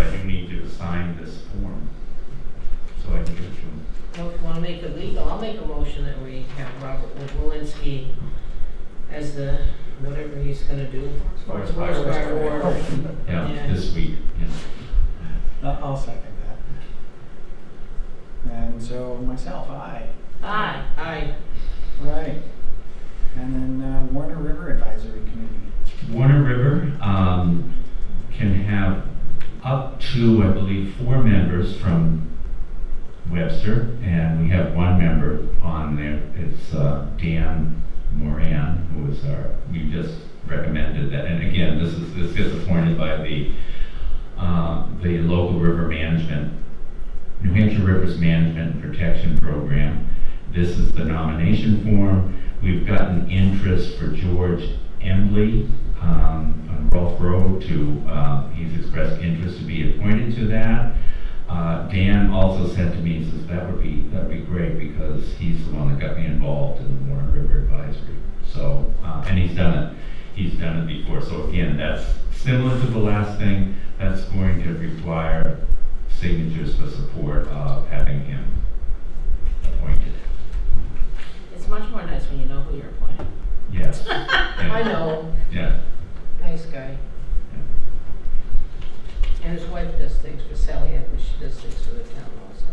to sign this form, so I can give it to him. Well, if you wanna make it legal, I'll make a motion that we have Robert Walensky as the, whatever he's gonna do. Sports Sports watch. Uh, watch. Yeah, Yeah. this week, yeah. I'll I'll second that. And so myself, aye. Aye, aye. Right. And then uh, Warner River Advisory Committee. Warner River um, can have up to, I believe, four members from Webster, and we have one member on there. It's uh, Dan Moran, who is our, we just recommended that. And again, this is, this gets appointed by the, uh, the local river management, New Hampshire Rivers Management Protection Program. This is the nomination form. We've gotten interest for George Embley um, on Rolf Road to, uh, he's expressed interest to be appointed to that. Uh, Dan also said to me, he says, that would be, that'd be great because he's the one that got me involved in the Warren River Advisory. So, uh, and he's done it, he's done it before. So again, that's similar to the last thing, that's going to require signatures for support of having him appointed. It's much more nice when you know who you're appointing. Yes. Yeah. I know, Yeah. nice guy. And his wife does things for Sally Edwards, she does things for the town also.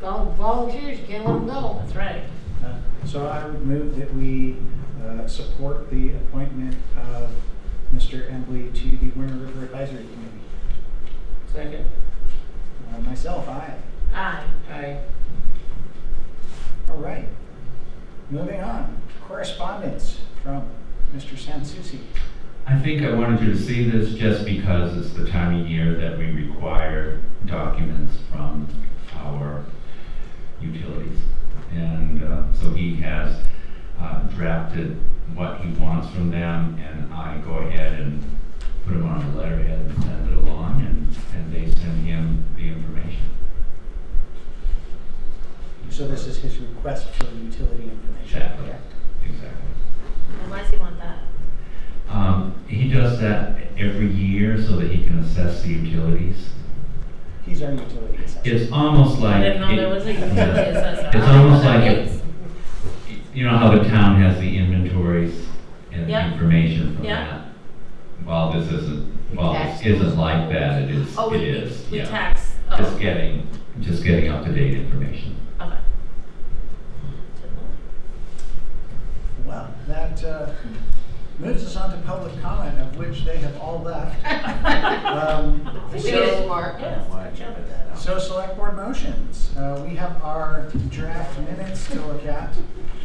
Vol- Volunteers, you can't let them go. That's right. Uh, So I would move that we uh, support the appointment of Mr. Embley to the Warner River Advisory Committee. Second. Uh, Myself, aye. Aye. Aye. All right. Moving on. Correspondence from Mr. Sansucci. I think I wanted you to see this just because it's the time of year that we require documents from our utilities. And uh, so he has uh, drafted what he wants from them, and I go ahead and put them on a letterhead and send it along, and, and they send him the information. So this is his request for utility information. Exactly. correct? Exactly. And why does he want that? Um, He does that every year so that he can assess the utilities. He's our utility assessor. It's almost like. I didn't know it- there was a utility Yeah. assessor. It's I don't know almost what that like it- means. You know how the town has the inventories and the Yeah. information from Yeah. that? While this isn't, while this Tax. isn't like that, it is, Oh, it we, is, we yeah. tax, oh, okay. Just getting, just getting up-to-date information. Well, that uh, moves us on to public comment, of which they have all left. Um, I think it is So, smart. Yeah, smart job at that. so select board motions. Uh, We have our draft minutes to look at.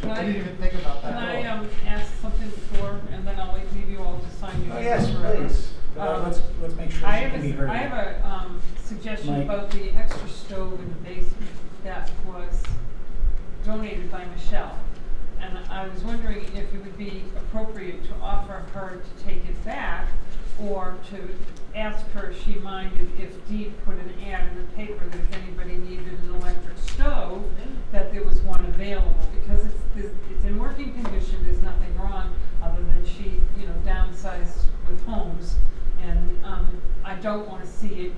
Can I I- didn't even think about Can I that. um, ask something before, and then I'll wait- leave you all to sign your. Oh, yes, whatever. please. Uh, Um, Let's, let's make sure I she have can be a, heard. I have a um, suggestion Mike. about the extra stove in the basement that was donated by Michelle. And I was wondering if it would be appropriate to offer her to take it back or to ask her if she minded if Dee put an ad in the paper that if anybody needed an electric stove, that there was one available, because it's, it's- it's in working condition, there's nothing wrong, other than she, you know, downsized with homes. And, um, I don't wanna see it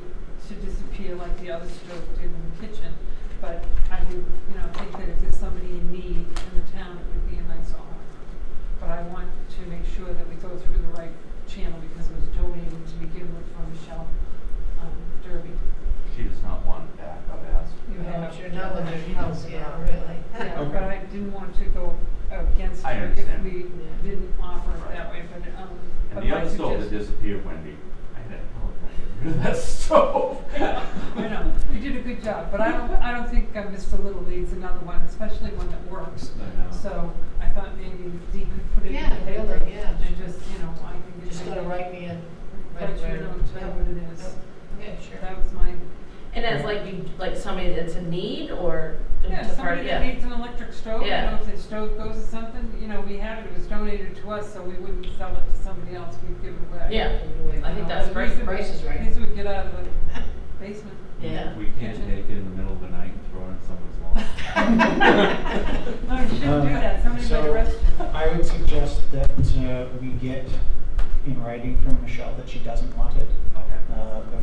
to disappear like the other stove did in the kitchen, but I do, you know, think that if there's somebody in need in the town, it would be a nice offer. But I want to make sure that we go through the right channel, because it was donated to begin with from Michelle, um, Derby. She does not want it back, I've asked. You have- Sure, now that there's house, yeah, really. Yeah, Okay. but I didn't want to go against I it if understand. we didn't offer it that way, but, um, but And the my other stove that suggest- disappeared, Wendy, I had to tell her, get rid of that stove. I know, you did a good job, but I don't, I don't think uh, Mr. Little needs another one, especially one that works. I know. So I thought maybe Dee could put it in Yeah, the paper really, yeah. and just, you know, I can get. Just my- gotta write me a. Let you know, tell you what it is. Yeah, sure. That was my, And as like you, like somebody that's in need or? the- yeah, the somebody part- that yeah. needs an electric stove, you Yeah. know, if the stove goes or something, you know, we had it, it was donated to us, so we wouldn't sell it to somebody else, we'd give it away. Yeah, I think know, that's at great. least it Price is right. At least we get out of the basement. Yeah. We can't take it in the middle of the night and throw it in someone's lawn. No, you shouldn't do that, somebody might So, arrest you. I would suggest that uh, we get in writing from Michelle that she doesn't want it Okay. uh, before